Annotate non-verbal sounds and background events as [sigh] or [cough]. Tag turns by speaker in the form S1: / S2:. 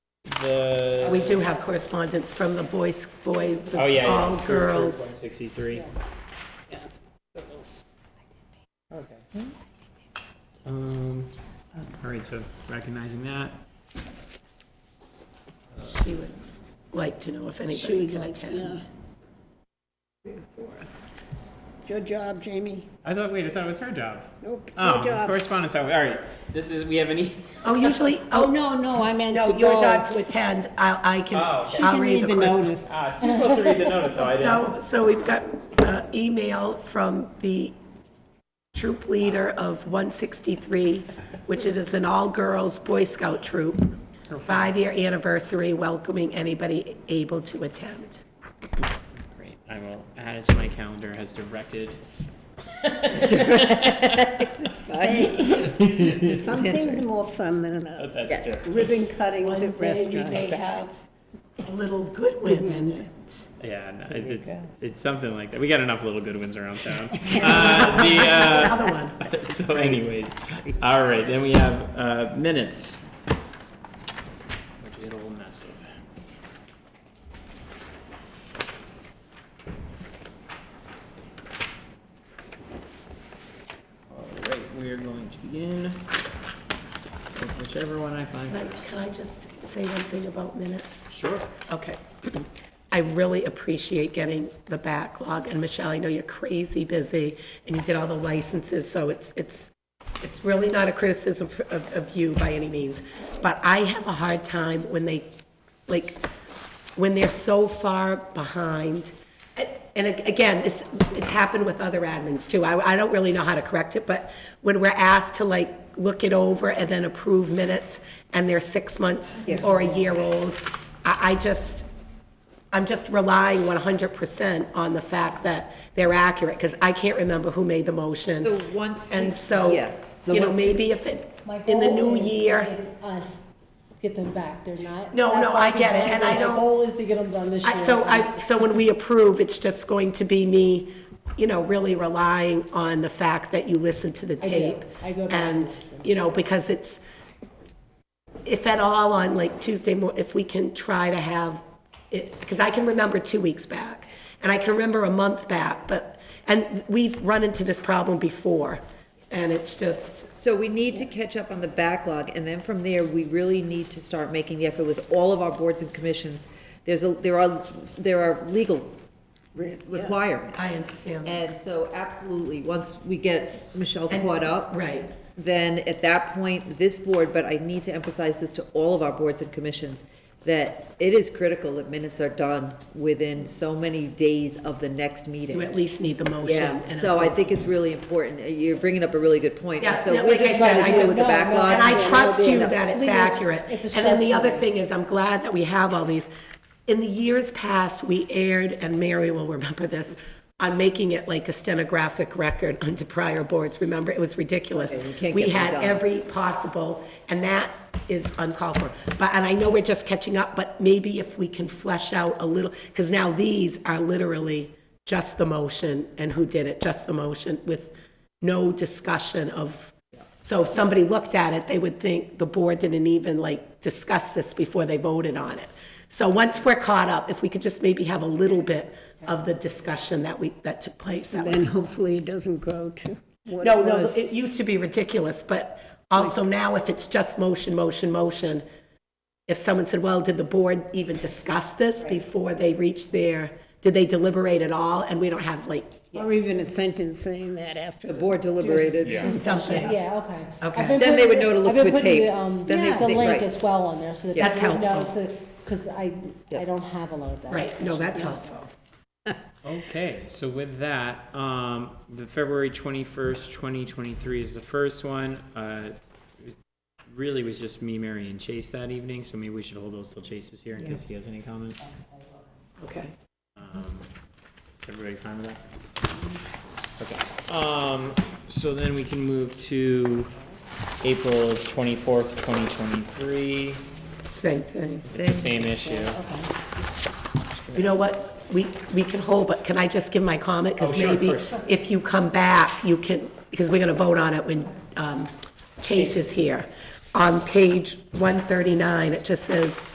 S1: the?
S2: We do have correspondence from the boys, boys, the
S1: Oh, yeah, yeah.
S2: all
S1: it's
S2: girls.
S1: 3.63.
S3: Yeah, it's girls.
S1: Okay. Um, all right, so recognizing that.
S2: She would like to know if
S3: She
S2: anybody
S3: would
S2: can
S3: like-
S2: attend.
S3: Good job, Jamie.
S1: I thought, wait, I thought it was her job.
S3: Nope,
S1: Oh,
S3: your job.
S1: correspondence, oh, all right. This is, we have e-, [laughs] any,
S2: Oh, usually,
S3: Oh,
S2: oh,
S3: no, no, I meant
S2: no,
S3: to
S2: you're
S3: go. [laughs]
S2: not to attend. I, I can,
S1: Oh, okay. She
S2: I'll
S3: You
S2: read
S3: need
S2: the
S3: the
S2: correspondence.
S3: notice.
S1: ah, she's supposed to read the notice, oh, I didn't.
S2: So, so we've got uh, email from the troop leader of 163, which it is an all-girls Boy Scout troop, five-year anniversary welcoming anybody able to attend.
S1: Great, I will add it to my calendar as directed.
S3: Some things are more fun than others.
S1: That's
S4: Yeah.
S1: true.
S3: Ribbon cuttings
S2: One
S3: at
S2: day we may
S3: restaurants.
S2: have a little Goodwin in it.
S1: Yeah, no, it- it's, it's something like that. We got enough little good ones around
S3: [laughs]
S1: town. Uh, the, uh,
S2: Another one.
S1: [laughs]
S2: [laughs]
S1: So anyways, all right, then we have uh, minutes. Which we had a little mess of. All right, we are going to begin with whichever one I find
S2: Can I-
S1: first.
S2: can I just say one thing about minutes?
S1: Sure.
S2: Okay. [clears throat] I really appreciate getting the backlog, and Michelle, I know you're crazy busy, and you did all the licenses, so it's, it's, it's really not a criticism for- of, of you by any means, but I have a hard time when they, like, when they're so far behind, and- and ag- again, this, it's happened with other admins too, I, I don't really know how to correct it, but when we're asked to like, look it over and then approve minutes, and they're six months or a year old, I, I just, I'm just relying 100% on the fact that they're accurate, because I can't remember who made the motion.
S4: So once we-
S2: And so,
S4: Yes, so
S2: you know,
S4: once-
S2: maybe if it,
S5: My
S2: in the
S5: goal
S2: new
S5: is to
S2: year,
S5: get Us, get them back, they're not.
S2: No,
S5: not
S2: no, I
S5: fucking
S2: get it, and
S5: done.
S2: I don't-
S5: My goal is to get them done this
S2: I-
S5: year.
S2: so I, so when we approve, it's just going to be me, you know, really relying on the fact that you listen to the
S5: do.
S2: tape.
S5: I go back and
S2: And,
S5: listen.
S2: you know, because it's, if at all on like Tuesday, mo- if we can try to have it, because I can remember two weeks back, and I can remember a month back, but, and we've run into this problem before, and it's just,
S4: So we need to catch up on the backlog, and then from there, we really need to start making the effort with all of our boards and commissions. There's a, there are, there are legal requirements.
S2: I understand.
S4: And so absolutely, once we get Michelle
S2: And-
S4: caught up.
S2: right.
S4: Then at that point, this board, but I need to emphasize this to all of our boards and commissions, that it is critical that minutes are done within so many days of the next meeting.
S2: you at least need the motion.
S4: Yeah,
S2: and
S4: so I think it's really important, you're bringing up a really good point.
S2: Yeah,
S4: So
S2: no,
S4: we're
S2: like I
S4: just trying
S2: said, I
S4: to deal
S2: just,
S4: with the backlog.
S2: and I trust you
S4: Yeah.
S2: that it's
S5: Legal,
S2: accurate.
S5: it's a
S2: And then the
S5: stressful.
S2: other thing is, I'm glad that we have all these. In the years past, we aired, and Mary will remember this, on making it like a stenographic record [laughs] onto prior boards. Remember, it was ridiculous.
S4: Okay, you can't
S2: We
S4: get them
S2: had
S4: done.
S2: every possible, and that is uncalled for. But, and I know we're just catching up, but maybe if we can flesh out a little, because now these are literally just the motion and who did it, just the motion with no discussion of, so if somebody looked at it, they would think the board didn't even like discuss this before they voted on it. So once we're caught up, if we could just maybe have a little bit of the discussion that we, that took place, that would
S3: Then hopefully it doesn't grow to what it
S2: no, no,
S3: was.
S2: it used to be ridiculous, but also now if it's just motion, motion, motion, if someone said, well, did the board even discuss this before they reached their, did they deliberate at all? And we don't have like
S3: Or even a sentence saying that after.
S4: The board deliberated.
S2: something.
S5: Yeah, okay.
S2: Okay.
S5: I've been
S4: Then they
S5: putting
S4: would
S5: the-
S4: know to look
S5: I've been
S4: to a
S5: putting the,
S4: tape.
S5: um,
S4: Then they-
S5: The
S4: they-
S5: link
S4: right.
S5: as well on there, so that.
S2: That's
S5: people would know,
S2: helpful.
S5: so- Cause I, I don't have a lot of that.
S2: Right, no, that's
S5: Yeah.
S2: helpful.
S1: Okay, so with that, um, the February twenty-first, twenty twenty-three is the first one. Uh, it really was just me, Mary, and Chase that evening, so maybe we should hold those till Chase is here in case he has any comment.
S2: Okay.
S1: Um, is everybody fine with that? Okay, um, so then we can move to April twenty-fourth, twenty twenty-three.
S2: Same thing.
S1: It's the same issue.
S2: You know what? We, we can hold, but can I just give my comment?
S1: Oh,
S2: Because
S1: sure, of
S2: maybe
S1: course.
S2: if you come back, you can, because we're going to vote on it when um, Chase is here. On page 139, it just says,